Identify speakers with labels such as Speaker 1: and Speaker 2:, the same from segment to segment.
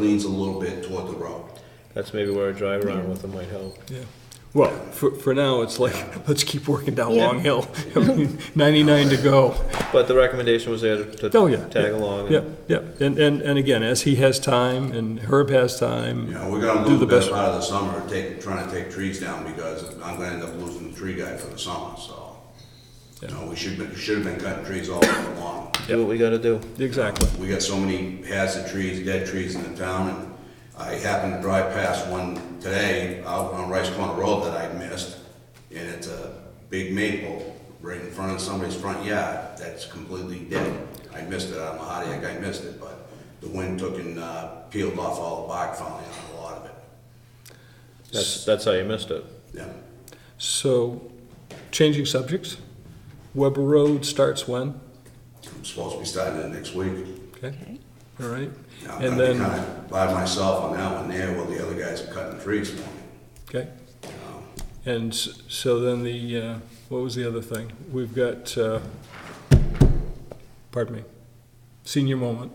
Speaker 1: leans a little bit toward the road.
Speaker 2: That's maybe where a drive around with them might help.
Speaker 3: Yeah. Well, for, for now, it's like, let's keep working down Long Hill. I mean, 99 to go.
Speaker 2: But the recommendation was there to
Speaker 3: Oh, yeah.
Speaker 2: to tag along.
Speaker 3: Yeah,
Speaker 2: and
Speaker 3: yeah. And, and, and again, as he has time and Herb has time.
Speaker 1: You know, we're gonna
Speaker 3: do
Speaker 1: lose
Speaker 3: the
Speaker 1: the best
Speaker 3: best-
Speaker 1: part of the summer, take, trying to take trees down because I'm gonna end up losing the tree guy for the summer, so. You know, we should, be- should have been cutting trees all over long.
Speaker 2: Do what we gotta do.
Speaker 3: Exactly.
Speaker 1: We got so many hazard trees, dead trees in the town, and I happened to drive past one today out on Rice Corner Road that I missed, and it's a big maple right in front of somebody's front yard that's completely dead. I missed it, I don't know how the heck I missed it, but the wind took and uh, peeled off all the bark finally on a lot of it.
Speaker 2: That's, that's how you missed it.
Speaker 1: Yeah,
Speaker 3: So, changing subjects. Weber Road starts when?
Speaker 1: I'm supposed to be starting it next week.
Speaker 3: Okay,
Speaker 4: Okay.
Speaker 3: all right.
Speaker 1: Now, I'm
Speaker 3: And
Speaker 1: gonna be
Speaker 3: then,
Speaker 1: kinda By myself on that one there, while the other guys are cutting trees for me.
Speaker 3: okay. And s- so then the, uh, what was the other thing? We've got, uh, pardon me, senior moment.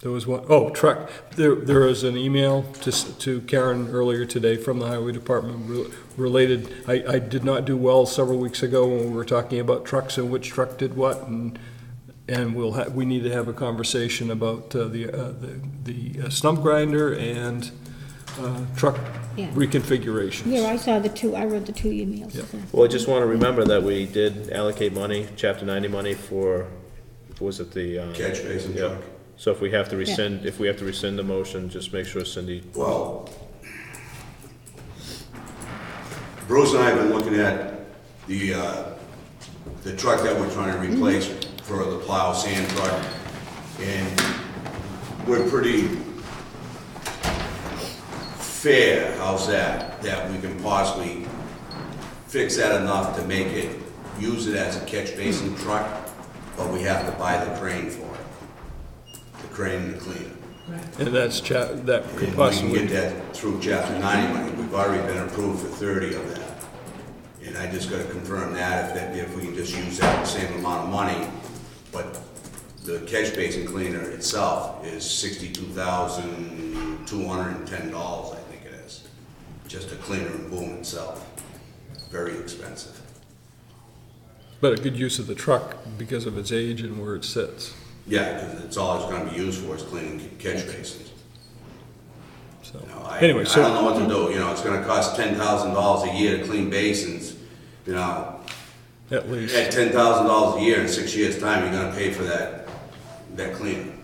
Speaker 3: There was one, oh, truck. There, there was an email to, s- to Karen earlier today from the highway department re- related. I, I did not do well several weeks ago when we were talking about trucks and which truck did what and, and we'll ha, we need to have a conversation about uh, the, uh, the, the uh, stump grinder and, uh, truck
Speaker 4: Yeah.
Speaker 3: reconfigurations.
Speaker 4: Yeah, I saw the two, I read the two emails.
Speaker 3: Yeah.
Speaker 2: Well, I just wanna remember that we did allocate money, chapter ninety money for, what was it the? um,
Speaker 1: Catch basin
Speaker 2: yeah.
Speaker 1: truck.
Speaker 2: So if we have to rescind, if we have to rescind the motion, just make sure Cindy,
Speaker 1: Well, Bruce and I have been looking at the, uh, the truck that we're trying to replace for the plow sand truck, and we're pretty fair, how's that, that we can possibly fix that enough to make it, use it as a catch basin truck, but we have to buy the crane for it, the crane and the cleaner.
Speaker 3: And that's cha, that could
Speaker 1: If we can get
Speaker 3: possibly,
Speaker 1: that through chapter ninety money, we've already been approved for thirty of that. And I just gotta confirm that, if that, if we can just use that same amount of money, but the catch basin cleaner itself is sixty-two thousand, two hundred and ten dollars, I think it is. Just a cleaner and boom itself, very expensive.
Speaker 3: but a good use of the truck because of its age and where it sits,
Speaker 1: Yeah, because it's all it's gonna be used for is cleaning catch basins.
Speaker 3: so.
Speaker 1: You know, I,
Speaker 3: Anyway,
Speaker 1: I don't
Speaker 3: so,
Speaker 1: know what to do, you know, it's gonna cost ten thousand dollars a year to clean basins, you know,
Speaker 3: at least,
Speaker 1: at ten thousand dollars a year in six years' time, you're gonna pay for that, that cleaning.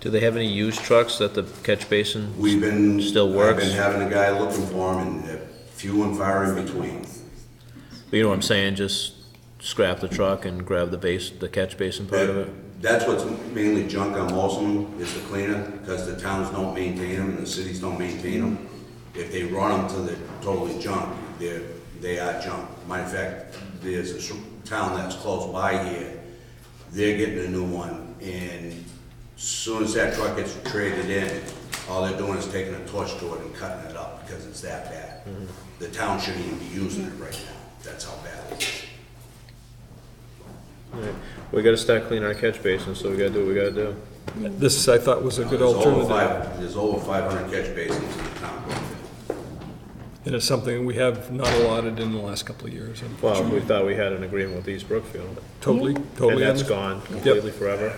Speaker 2: do they have any used trucks that the catch basin?
Speaker 1: We've been.
Speaker 2: Still works.
Speaker 1: I've been having a guy looking for them and they're few and far in between.
Speaker 2: You know what I'm saying, just scrap the truck and grab the base, the catch basin part of it?
Speaker 1: That's what's mainly junk on most of them, is the cleaner, because the towns don't maintain them and the cities don't maintain them. If they run them till they're totally junk, they're, they are junk. Matter of fact, there's a s- town that's close by here, they're getting a new one, and soon as that truck gets traded in, all they're doing is taking a torch to it and cutting it up, because it's that bad.
Speaker 2: Mm-hmm.
Speaker 1: The town shouldn't even be using it right now, that's how bad it is.
Speaker 2: Right. We gotta start cleaning our catch basin, so we gotta do what we gotta do.
Speaker 3: this I thought was a good
Speaker 1: There's over
Speaker 3: alternative.
Speaker 1: five- There's over five hundred catch basins in the town.
Speaker 3: And it's something we have not allotted in the last couple of years. and
Speaker 2: Well, we thought we had an agreement with East Brookfield,
Speaker 3: Totally,
Speaker 2: and
Speaker 3: totally.
Speaker 2: that's
Speaker 3: understand.
Speaker 2: gone completely forever.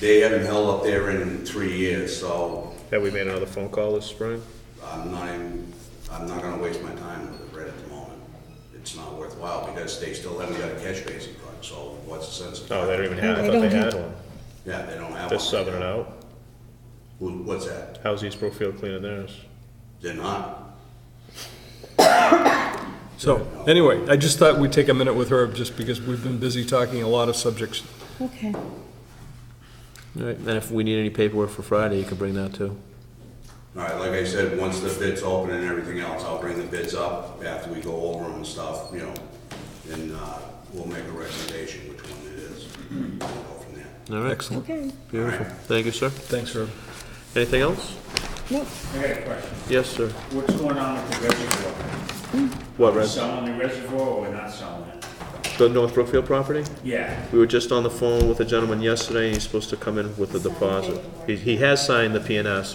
Speaker 1: They haven't held up there in three years, so
Speaker 2: Have we made another phone call this spring?
Speaker 1: I'm not even, I'm not gonna waste my time with it right at the moment. It's not worthwhile because they still haven't got a catch basin fund, so what's the sense of?
Speaker 2: No, Oh, they don't even have, I
Speaker 4: They
Speaker 2: thought they
Speaker 4: don't
Speaker 2: had
Speaker 4: have-
Speaker 2: one.
Speaker 1: Yeah, they don't have one.
Speaker 2: They're subbing it out.
Speaker 1: Who, what's that?
Speaker 2: How's East Brookfield cleaning theirs?
Speaker 1: They're not.
Speaker 3: So, anyway, I just thought we'd take a minute with Herb, just because we've been busy talking a lot of subjects.
Speaker 4: Okay,
Speaker 2: Alright, and if we need any paperwork for Friday, you can bring that too.
Speaker 1: All right, like I said, once the bids open and everything else, I'll bring the bids up after we go over them and stuff, you know. And, uh, we'll make a recommendation which one it is. We'll go from there.
Speaker 2: Alright,
Speaker 3: Excellent.
Speaker 4: okay.
Speaker 2: beautiful. Thank you, sir.
Speaker 3: Thanks, Herb.
Speaker 2: Anything else?
Speaker 4: Nope.
Speaker 5: I got a question.
Speaker 2: Yes, sir.
Speaker 5: What's going on with the reservoir?
Speaker 2: What,
Speaker 5: We're
Speaker 2: Red?
Speaker 5: Selling the reservoir or we're not selling it?
Speaker 2: the North Brookfield property?
Speaker 5: Yeah,
Speaker 2: We were just on the phone with a gentleman yesterday, and he's supposed to come in with a deposit. He, he has signed the PNS,